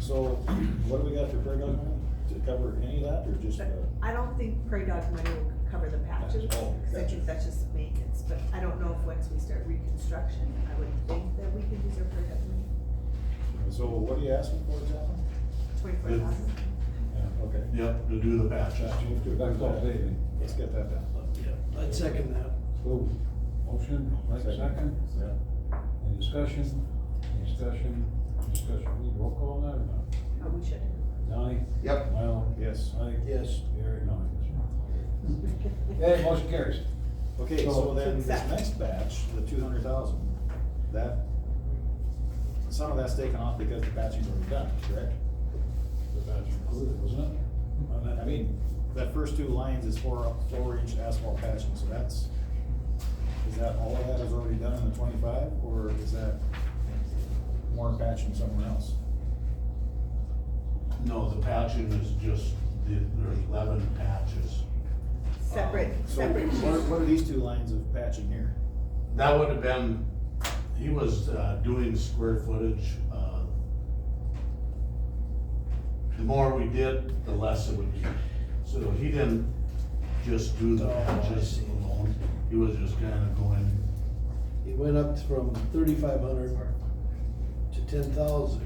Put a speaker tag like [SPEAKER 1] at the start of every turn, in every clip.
[SPEAKER 1] So what do we got for Greg on that? To cover any of that or just, uh,
[SPEAKER 2] But I don't think prairie dog money will cover the patches,
[SPEAKER 1] Patch, oh,
[SPEAKER 2] because I
[SPEAKER 1] gotcha.
[SPEAKER 2] think that's just maintenance, but I don't know if once we start reconstruction, I would think that we could use our prairie dog money,
[SPEAKER 1] so what are you asking for, John?
[SPEAKER 2] twenty-four thousand.
[SPEAKER 1] Yeah, okay.
[SPEAKER 3] Yep, to do the patch.
[SPEAKER 1] Josh, move to approve that. Let's get that done.
[SPEAKER 4] Yeah, I'd second that.
[SPEAKER 5] So, motion, like a second,
[SPEAKER 1] Yeah.
[SPEAKER 5] any discussion, any discussion, any discussion, we need roll call on that or not?
[SPEAKER 2] Oh, we should.
[SPEAKER 5] Donnie?
[SPEAKER 3] Yep.
[SPEAKER 5] Well,
[SPEAKER 1] Yes.
[SPEAKER 5] Mike?
[SPEAKER 4] Yes.
[SPEAKER 5] Gary, no, yes. Okay, motion carries.
[SPEAKER 1] Okay, so
[SPEAKER 2] So-
[SPEAKER 1] then this
[SPEAKER 2] Exactly.
[SPEAKER 1] next batch, the two hundred thousand, that, some of that's taken off because the batching's already done, correct?
[SPEAKER 5] The batch included, wasn't it?
[SPEAKER 1] On that- I mean, that first two lines is four, four inch asphalt patching, so that's, is that, all of that is already done in the twenty-five, or is that more patching somewhere else?
[SPEAKER 3] No, the patching is just, the- there's eleven patches.
[SPEAKER 2] Separate,
[SPEAKER 3] Um,
[SPEAKER 1] So
[SPEAKER 2] separate.
[SPEAKER 1] what are, what are these two lines of patching here?
[SPEAKER 3] That would have been, he was uh, doing square footage. uh, The more we did, the less it would be. So he didn't just do the
[SPEAKER 4] Oh, I
[SPEAKER 3] patches
[SPEAKER 4] see.
[SPEAKER 3] alone. He was just kind of going,
[SPEAKER 4] He went up from thirty-five hundred to ten thousand.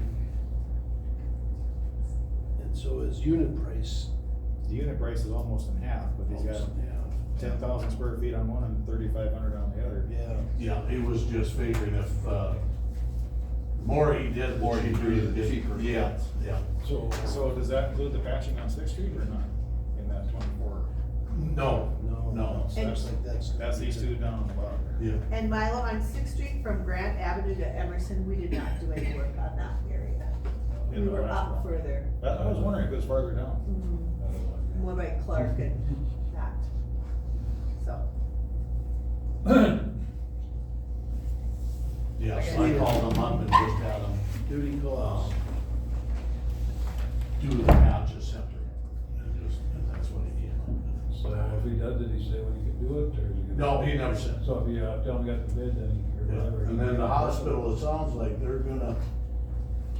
[SPEAKER 4] And so his unit price.
[SPEAKER 1] The unit price is almost in half, but he's got ten thousand square feet on one and thirty-five hundred on the other.
[SPEAKER 4] Yeah,
[SPEAKER 3] yeah, he was just figuring if, uh, the more he did, the more he did. Cheaper. Yeah, yeah.
[SPEAKER 4] so,
[SPEAKER 1] So does that include the patching on Sixth Street or not, in that twenty-four?
[SPEAKER 3] No,
[SPEAKER 4] no.
[SPEAKER 3] no,
[SPEAKER 1] So that's-
[SPEAKER 4] Looks like that's.
[SPEAKER 1] That's these two down on the bottom.
[SPEAKER 3] yeah.
[SPEAKER 2] And Milo, on Sixth Street from Grant Avenue to Emerson, we did not do any work on that area.
[SPEAKER 1] In
[SPEAKER 2] We
[SPEAKER 1] the
[SPEAKER 2] were
[SPEAKER 1] last
[SPEAKER 2] up
[SPEAKER 1] one.
[SPEAKER 2] further,
[SPEAKER 1] I, I was wondering if it was farther down.
[SPEAKER 2] mm, more by Clark and that, so.
[SPEAKER 3] Yeah, so I called him up and just had him um,
[SPEAKER 4] Duty calls.
[SPEAKER 3] do the patches separate. And just, and that's what he came up with.
[SPEAKER 5] So if he does, did he say when he could do it, or? is he gonna-
[SPEAKER 3] No, he never said.
[SPEAKER 5] So if you, uh, tell him you got the bid, then he, or whatever.
[SPEAKER 3] And then the hospital, it sounds like they're gonna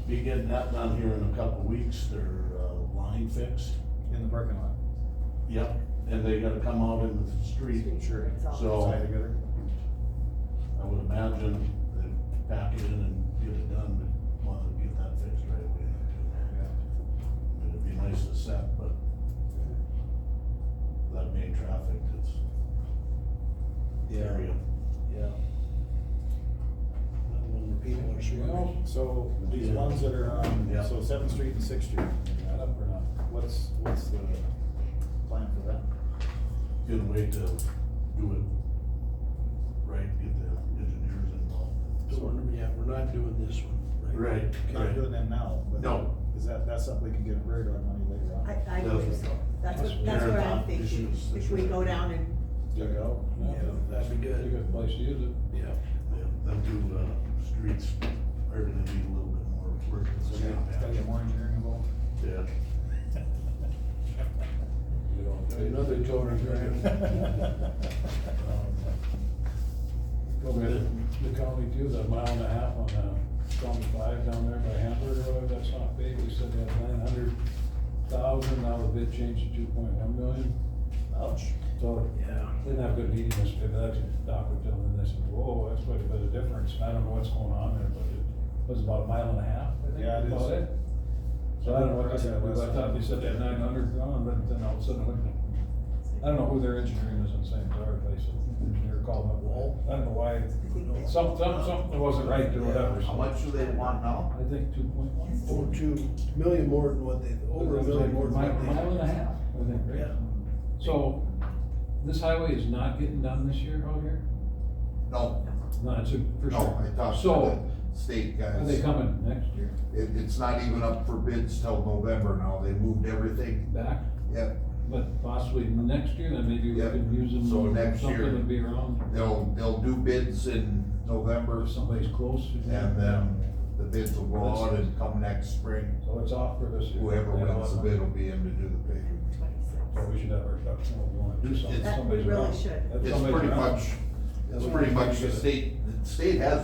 [SPEAKER 3] be getting that done here in a couple of weeks, their, uh, line fixed.
[SPEAKER 1] In the parking lot.
[SPEAKER 3] Yep, and they gotta come out in the street.
[SPEAKER 1] Sure.
[SPEAKER 2] It's all-
[SPEAKER 3] So-
[SPEAKER 1] Tied together.
[SPEAKER 3] I would imagine they pack it in and get it done, but wanted to get that fixed right away.
[SPEAKER 1] Yeah.
[SPEAKER 3] It'd be nice to set, but that main traffic, it's area.
[SPEAKER 4] Yeah. Not When the people are sure.
[SPEAKER 1] So these ones that are on,
[SPEAKER 3] Yeah.
[SPEAKER 1] so Seventh Street and Sixth Street,
[SPEAKER 5] Got up or not?
[SPEAKER 1] what's, what's the plan for that?
[SPEAKER 3] Good way to do it right, get the engineers involved.
[SPEAKER 4] So we're- "Oh, yeah, we're not doing this one.
[SPEAKER 3] Right,
[SPEAKER 1] Not
[SPEAKER 3] right.
[SPEAKER 1] doing them now, but.
[SPEAKER 3] No.
[SPEAKER 1] Is that, that's something we can get a rate on money later on?
[SPEAKER 2] I, I believe so, that's what, that's what I'm thinking, if we go down and
[SPEAKER 1] Check it out.
[SPEAKER 4] Yeah, that'd be
[SPEAKER 5] It's a
[SPEAKER 4] good.
[SPEAKER 5] good place to use it.
[SPEAKER 4] Yeah.
[SPEAKER 3] Yeah, Them two, uh, streets are gonna need a little bit more work.
[SPEAKER 1] So we gotta get more engineering involved.
[SPEAKER 3] Yeah.
[SPEAKER 5] You don't-
[SPEAKER 4] Another two hundred
[SPEAKER 1] Um,
[SPEAKER 5] Go with the county too, that mile and a half on, uh, County Five down there by Hamburg Road, that's not big, we said they had nine hundred thousand, now the bid changed to two point one million.
[SPEAKER 1] Ouch.
[SPEAKER 5] So,
[SPEAKER 4] Yeah.
[SPEAKER 5] they didn't have good heating, this, that's, Doc would tell them this, and whoa, that's quite a bit of difference, I don't know what's going on there, but it was about a mile and a half, I think.
[SPEAKER 1] Yeah, it is.
[SPEAKER 5] about So I don't know what they said, I thought they said they had nine hundred gone, but then all of a sudden, it went- I don't know who their engineering is on St. Clair, they said, engineer called up, well, I don't know why, some, some, something wasn't right or whatever. so-
[SPEAKER 3] do they want now?
[SPEAKER 5] I think two point one.
[SPEAKER 4] Over two million more than what they, over a million more than
[SPEAKER 5] Mile
[SPEAKER 4] what they.
[SPEAKER 5] mile and a half, I think, right?
[SPEAKER 4] Yeah.
[SPEAKER 5] So, this highway is not getting done this year out here?
[SPEAKER 6] No,
[SPEAKER 5] No, it's a, for
[SPEAKER 6] no, I
[SPEAKER 5] sure.
[SPEAKER 6] talked
[SPEAKER 5] So,
[SPEAKER 6] to the state
[SPEAKER 5] are they
[SPEAKER 6] guys.
[SPEAKER 5] coming next year
[SPEAKER 6] It, it's not even up for bids till November now. They moved everything.
[SPEAKER 5] back?
[SPEAKER 6] Yep,
[SPEAKER 5] But possibly next year, then maybe we
[SPEAKER 6] Yep.
[SPEAKER 5] can use them,
[SPEAKER 6] So next
[SPEAKER 5] something
[SPEAKER 6] year.
[SPEAKER 5] would be around,
[SPEAKER 6] they'll, they'll do bids in November
[SPEAKER 5] if somebody's close. you know.
[SPEAKER 6] and then the bids will go out and come next spring.
[SPEAKER 5] So it's off for this year.
[SPEAKER 6] Whoever
[SPEAKER 5] Yeah,
[SPEAKER 6] wins the
[SPEAKER 5] so-
[SPEAKER 6] bid will be in to do the paving.
[SPEAKER 5] So
[SPEAKER 2] twenty-six.
[SPEAKER 5] we should have our ducks in a row, we wanna do something.
[SPEAKER 6] It's-
[SPEAKER 2] That we
[SPEAKER 5] Somebody's
[SPEAKER 2] really
[SPEAKER 5] around.
[SPEAKER 2] should.
[SPEAKER 5] If
[SPEAKER 6] It's
[SPEAKER 5] somebody's
[SPEAKER 6] pretty
[SPEAKER 5] around.
[SPEAKER 6] much, it's pretty much the state, the state has